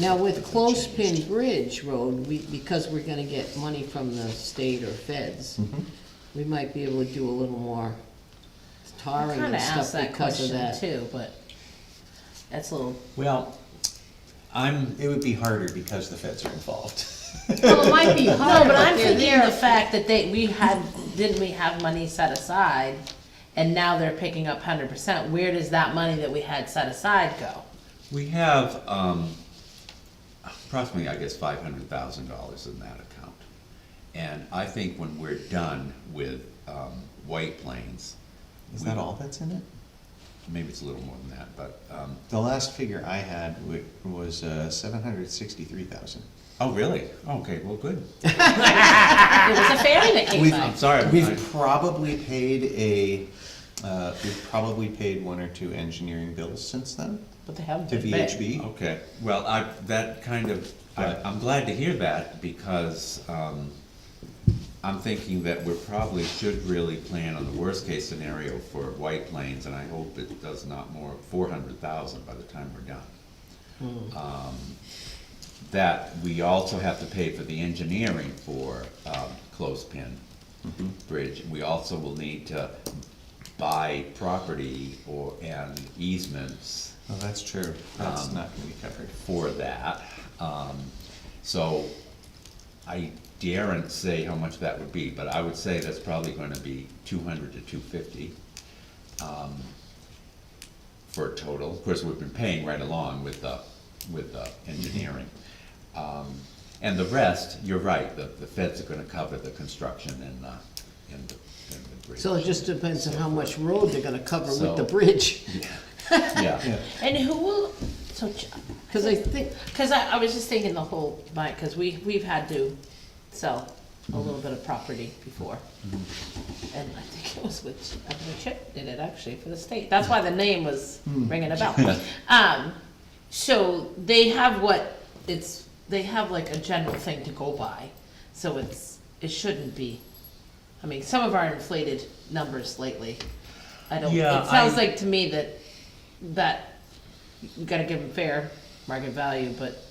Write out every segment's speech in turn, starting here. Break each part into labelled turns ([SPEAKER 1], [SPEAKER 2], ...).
[SPEAKER 1] Now with
[SPEAKER 2] close
[SPEAKER 1] Closepin Bridge Road, we, because we're gonna get money from the state or feds, we might be able to do a little more
[SPEAKER 2] I
[SPEAKER 1] tarring
[SPEAKER 2] kinda
[SPEAKER 1] and
[SPEAKER 2] asked
[SPEAKER 1] stuff
[SPEAKER 2] that
[SPEAKER 1] because of
[SPEAKER 2] question
[SPEAKER 1] that.
[SPEAKER 2] too, but that's a little,
[SPEAKER 3] Well, I'm, it would be harder because the feds are involved.
[SPEAKER 1] Well, it might be
[SPEAKER 2] no,
[SPEAKER 1] hard,
[SPEAKER 2] but I'm
[SPEAKER 1] they're
[SPEAKER 2] thinking
[SPEAKER 1] there.
[SPEAKER 2] the fact that they, we had, didn't we have money set aside? And now they're picking up hundred percent, where does that money that we had set aside go?
[SPEAKER 3] We have, um, approximately, I guess, five hundred thousand dollars in that account. And I think when we're done with, um, White Plains.
[SPEAKER 4] Is
[SPEAKER 3] we-
[SPEAKER 4] that all that's in it?
[SPEAKER 3] Maybe it's a little more than that, but, um,
[SPEAKER 4] The last figure I had wa- was uh, seven hundred sixty-three thousand.
[SPEAKER 3] oh, really? Okay, well, good.
[SPEAKER 2] It was a family that came
[SPEAKER 4] We've-
[SPEAKER 2] by.
[SPEAKER 3] I'm sorry. I-
[SPEAKER 4] We've probably paid a, uh, we've probably paid one or two engineering bills since then
[SPEAKER 2] But they haven't
[SPEAKER 4] to
[SPEAKER 2] been big.
[SPEAKER 4] VHB.
[SPEAKER 3] Okay, well, I, that kind of, I, I'm glad to hear that, because, um, I'm thinking that we probably should really plan on the worst-case scenario for White Plains, and I hope it does not more, four hundred thousand by the time we're done. Um, That, we also have to pay for the engineering for, um, Clothespin Bridge, we also will need to buy property or, and easements
[SPEAKER 4] Oh, that's true. That's
[SPEAKER 3] Um,
[SPEAKER 4] not gonna be covered.
[SPEAKER 3] for that. Um, so I daren't say how much that would be, but I would say that's probably gonna be two hundred to two fifty. um, For a total, of course, we've been paying right along with the, with the engineering. Um, and the rest, you're right, the, the feds are gonna cover the construction and, uh, and the, and the bridge.
[SPEAKER 1] So it just depends on how much road they're gonna cover with the
[SPEAKER 3] So-
[SPEAKER 1] bridge,
[SPEAKER 3] Yeah,
[SPEAKER 4] Yeah,
[SPEAKER 2] And who will, so, Ch-
[SPEAKER 1] cause I think,
[SPEAKER 2] Cause I, I was just thinking the whole, night cause we, we've had to sell a little bit of property before.
[SPEAKER 3] Mm-hmm.
[SPEAKER 2] And I think it was with, I think Chip did it actually for the state, that's why the name was
[SPEAKER 3] Mm.
[SPEAKER 2] ringing a bell. Um, so they have what, it's, they have like a general thing to go by, so it's, it shouldn't be. I mean, some of our inflated numbers lately, I don't,
[SPEAKER 3] Yeah,
[SPEAKER 2] it sounds
[SPEAKER 3] I-
[SPEAKER 2] like to me that, that you gotta give them fair market value, but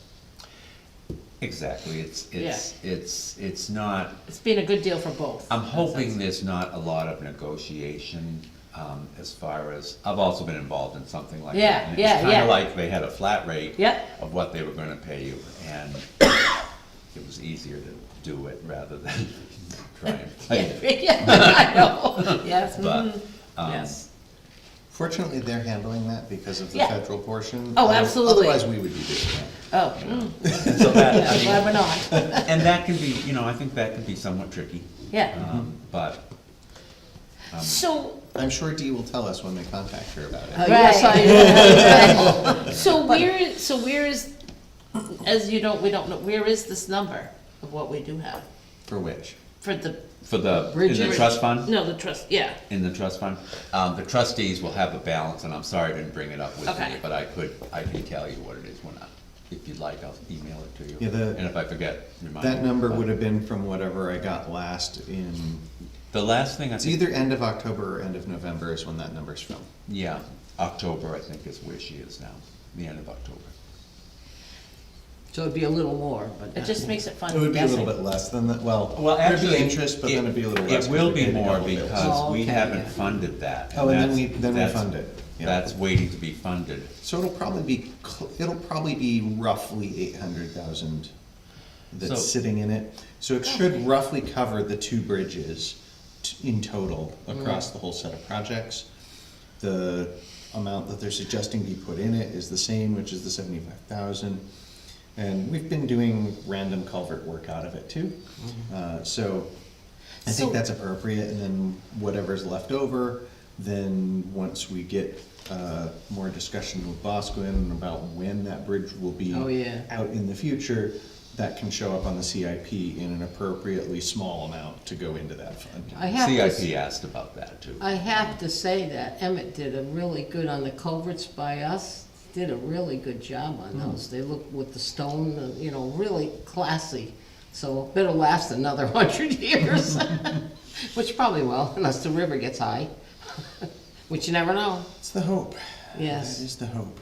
[SPEAKER 3] exactly, it's, it's, it's, it's not
[SPEAKER 2] it's been a good deal for both.
[SPEAKER 3] I'm hoping there's not a lot of negotiation, um, as far as, I've also been involved in something like that.
[SPEAKER 2] Yeah,
[SPEAKER 3] and
[SPEAKER 2] yeah,
[SPEAKER 3] It's
[SPEAKER 2] yeah.
[SPEAKER 3] kinda like they had a flat rate.
[SPEAKER 2] Yep.
[SPEAKER 3] Of what they were gonna pay you, and it was easier to do it rather than try and play
[SPEAKER 2] Yeah,
[SPEAKER 3] it.
[SPEAKER 2] yeah, I know, yes,
[SPEAKER 3] But,
[SPEAKER 2] mhm,
[SPEAKER 3] um,
[SPEAKER 2] yes.
[SPEAKER 4] Fortunately, they're handling that because of the
[SPEAKER 2] Yeah.
[SPEAKER 4] federal portion.
[SPEAKER 2] Oh,
[SPEAKER 4] Other-
[SPEAKER 2] absolutely.
[SPEAKER 4] Otherwise, we would be doing that.
[SPEAKER 2] Oh, mm,
[SPEAKER 3] So that, I
[SPEAKER 2] yeah,
[SPEAKER 3] mean, um,
[SPEAKER 2] glad we're not,
[SPEAKER 3] and that can be, you know, I think that can be somewhat tricky,
[SPEAKER 2] yeah.
[SPEAKER 3] um, but,
[SPEAKER 2] So,
[SPEAKER 4] I'm sure Dee will tell us when they contact her about
[SPEAKER 1] uh,
[SPEAKER 4] it.
[SPEAKER 1] yes,
[SPEAKER 2] Right.
[SPEAKER 1] I,
[SPEAKER 2] so where is, so where is, as you don't, we don't know, where is this number of what we do have
[SPEAKER 4] For which?
[SPEAKER 2] for the?
[SPEAKER 3] for the, in the
[SPEAKER 1] Bridges.
[SPEAKER 3] trust fund?
[SPEAKER 2] No, the trust, yeah,
[SPEAKER 3] in the trust fund. Um, the trustees will have a balance, and I'm sorry I didn't bring it up with
[SPEAKER 2] Okay.
[SPEAKER 3] me, but I could, I can tell you what it is when I, if you'd like, I'll email it to you.
[SPEAKER 4] Yeah, the-
[SPEAKER 3] And if I forget, remind me.
[SPEAKER 4] That number would have been from whatever I got last in,
[SPEAKER 3] The last thing I
[SPEAKER 4] it's
[SPEAKER 3] think,
[SPEAKER 4] either end of October or end of November is when that number's from.
[SPEAKER 3] yeah, October, I think is where she is now, the end of October.
[SPEAKER 1] so it'd be a little more, but
[SPEAKER 2] it
[SPEAKER 1] not
[SPEAKER 2] just
[SPEAKER 1] more.
[SPEAKER 2] makes it fun
[SPEAKER 4] It would be a little
[SPEAKER 2] guessing.
[SPEAKER 4] bit less than that, well, there'd be interest, but then it'd be a little less.
[SPEAKER 3] It
[SPEAKER 4] 'cause we
[SPEAKER 3] will be
[SPEAKER 4] paid a
[SPEAKER 3] more
[SPEAKER 4] couple bills.
[SPEAKER 3] because
[SPEAKER 1] Oh,
[SPEAKER 3] we
[SPEAKER 1] okay, yeah.
[SPEAKER 3] haven't funded that.
[SPEAKER 4] Oh, and then
[SPEAKER 3] that's-
[SPEAKER 4] we, then we
[SPEAKER 3] that's-
[SPEAKER 4] fund it. yeah.
[SPEAKER 3] That's waiting to be funded.
[SPEAKER 4] So it'll probably be, cl- it'll probably be roughly eight hundred thousand
[SPEAKER 3] So-
[SPEAKER 4] that's sitting in it. So it should roughly cover the two bridges t- in total across the whole set of projects. The amount that they're suggesting be put in it is the same, which is the seventy-five thousand. And we've been doing random culvert work out of it too. Uh, so I
[SPEAKER 2] So-
[SPEAKER 4] think that's appropriate, and then whatever's left over, then once we get, uh, more discussion with Bosquen about when that bridge will be
[SPEAKER 1] Oh, yeah.
[SPEAKER 4] out in the future, that can show up on the CIP in an appropriately small amount to go into that fund.
[SPEAKER 1] I have to. s-
[SPEAKER 3] CIP asked about that too.
[SPEAKER 1] I have to say that Emmett did a really good on the culverts by us, did a really good job on those. They look with the stone, uh, you know, really classy. So better last another hundred years, which probably will, unless the river gets high, which you never know.
[SPEAKER 4] It's the hope.
[SPEAKER 1] Yes.
[SPEAKER 4] That is the hope.